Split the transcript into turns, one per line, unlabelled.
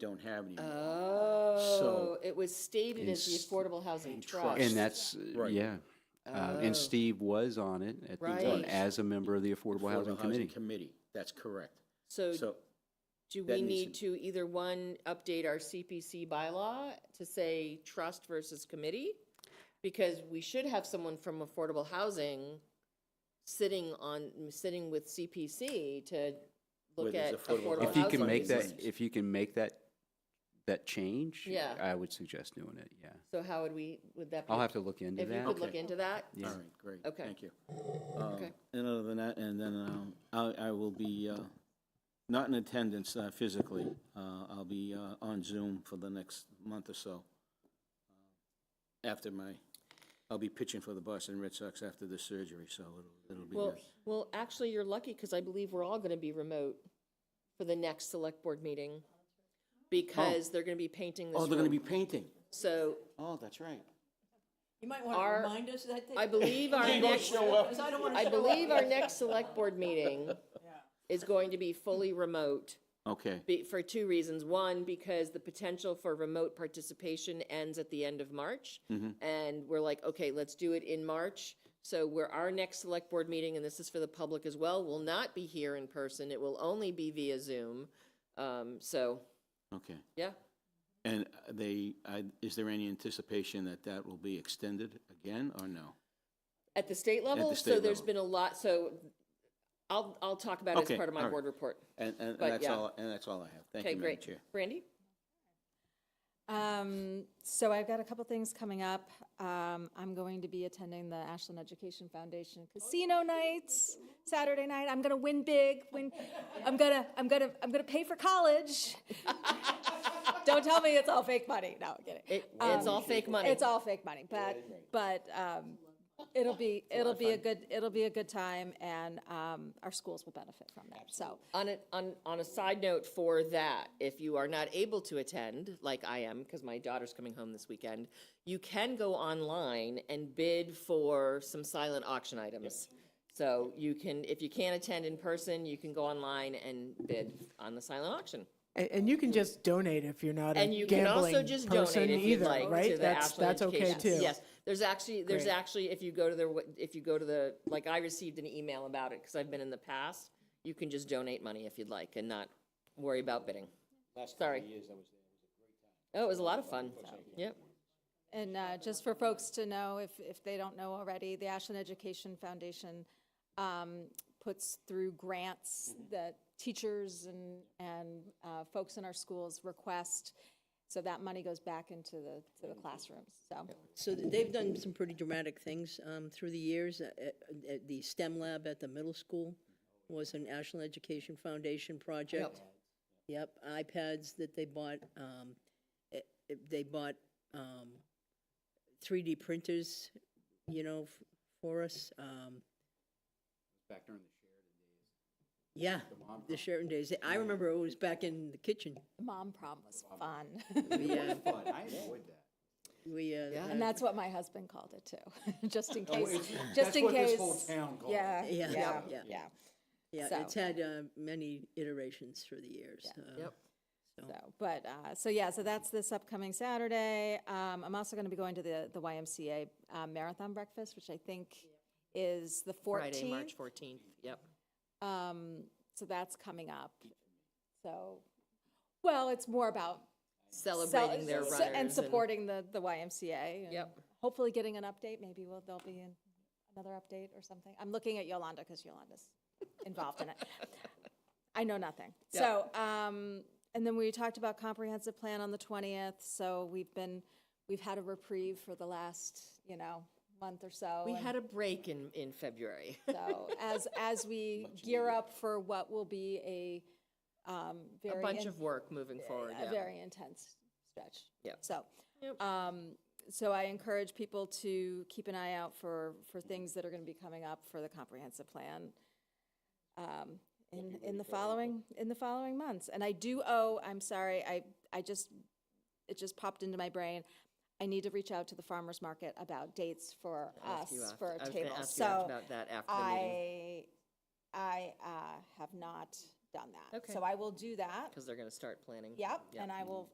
don't have any.
Oh, it was stated as the
Ins-
Affordable Housing Trust.
And that's, uh,
Right.
yeah. Uh, And Steve was on it at the time
Oh. Right.
as a member of the Affordable Housing Committee.
Committee, that's correct.
So
So,
do
that
we need
needs
to either one, update our CPC bylaw to say trust versus committee? Because we should have someone from affordable housing sitting on, sitting with CPC to look
With his
at
affordable
affordable housing.
If you can
housing
make that,
committee.
if you can make that, that change,
Yeah.
I would suggest doing it, yeah.
So how would we, would that be?
I'll have to look into
If you could
that.
look into that?
all right, great,
Okay.
thank you. Um,
Okay.
And other than that, and then um, I, I will be uh, not in attendance uh, physically. Uh, I'll be uh, on Zoom for the next month or so. Uh, After my, I'll be pitching for the Boston Red Sox after the surgery, so it'll, it'll be
Well,
good.
well, actually, you're lucky because I believe we're all going to be remote for the next select board meeting because they're going to be painting this
Oh, they're gonna
room.
be painting.
So
Oh, that's right.
You might want to
Our-
remind us of that thing.
I believe our next,
Because I don't want to
I
show up.
believe our next select board meeting is going to be fully remote
Okay,
be- for two reasons. One, because the potential for remote participation ends at the end of March.
Mm-hmm.
And we're like, okay, let's do it in March. So where our next select board meeting, and this is for the public as well, will not be here in person. It will only be via Zoom. Um, so,
okay.
yeah.
And uh, they, I, is there any anticipation that that will be extended again, or no?
At the state level, so
state
there's
level.
been a lot, so I'll, I'll talk about it
Okay,
as part of my
all right.
board report.
And, and
But,
that's
yeah.
all, and that's all I have. Thank
Okay,
you, Madam
great.
Chair.
Brandy?
Um, so I've got a couple things coming up. Um, I'm going to be attending the Ashland Education Foundation Casino Nights Saturday night. I'm gonna win big. Win. I'm gonna. I'm gonna. I'm gonna pay for college. Don't tell me it's all fake money. No, I'm kidding. Um,
It, it's all fake money.
It's all fake money, but, but, um, it'll be, it'll be a good, it'll be a good time and, um, our schools will benefit from that, so.
On a, on, on a side note for that, if you are not able to attend, like I am, because my daughter's coming home this weekend, you can go online and bid for some silent auction items. So you can, if you can't attend in person, you can go online and bid on the silent auction.
And, and you can just donate if you're not a
And you can also
gambling
just
person
donate if you'd
either,
like
right?
to the
that's
Ashland
that's okay
Education-
too.
Yes, there's actually, there's
Great.
actually, if you go to their, w- if you go to the, like, I received an email about it, because I've been in the past. You can just donate money if you'd like and not worry about bidding. Sorry. Oh, it was a lot of fun. Yep.
And uh, just for folks to know, if, if they don't know already, the Ashland Education Foundation um, puts through grants that teachers and, and uh, folks in our schools request. So that money goes back into the, to the classrooms, so.
So th- they've done some pretty dramatic things um, through the years. Uh, uh, uh, The STEM lab at the middle school was an Ashland Education Foundation project. Yep, iPads that they bought, um, eh, eh, they bought um, 3D printers, you know, f- for us. um, Yeah, the Sheraton days. I remember it was back in the kitchen.
Mom prom was fun.
We, uh, We, uh,
Yeah.
And
had-
that's what my husband called it too, just in case, just in case. Yeah,
Yeah,
yeah,
yeah.
yeah,
yeah,
so-
it's had uh, many iterations through the years. uh,
Yep.
So, but, uh, so yeah, so that's this upcoming Saturday. Um, I'm also gonna be going to the, the YMCA uh, Marathon Breakfast, which I think is the
Friday, March
fourteenth.
14th. Yep.
Um, so that's coming up. So, well, it's more about cel-
Celebrating their
so-
runners.
And supporting the, the YMCA. and
Yep.
Hopefully getting an update, maybe we'll, there'll be an- another update or something. I'm looking at Yolanda because Yolanda's involved in it. I know nothing. So, um, and then we talked about comprehensive plan on the twentieth, so we've been, we've had a reprieve for the last, you know, month or so.
We
and-
had a break in, in February.
so as, as we gear up for what will be a um,
A
very,
bunch
in-
of work moving forward.
a
yeah.
very intense stretch.
Yep.
So,
Yep.
um, so I encourage people to keep an eye out for, for things that are going to be coming up for the comprehensive plan um, in, in the following, in the following months. And I do owe, I'm sorry, I, I just, it just popped into my brain. I need to reach out to the farmer's market about dates for
Ask you
us
after-
for
I
a
was gonna
table.
ask you
So
About that after the meeting.
I, I uh, have not done that.
Okay.
So I will do that.
because they're going to start planning.
Yep, and I will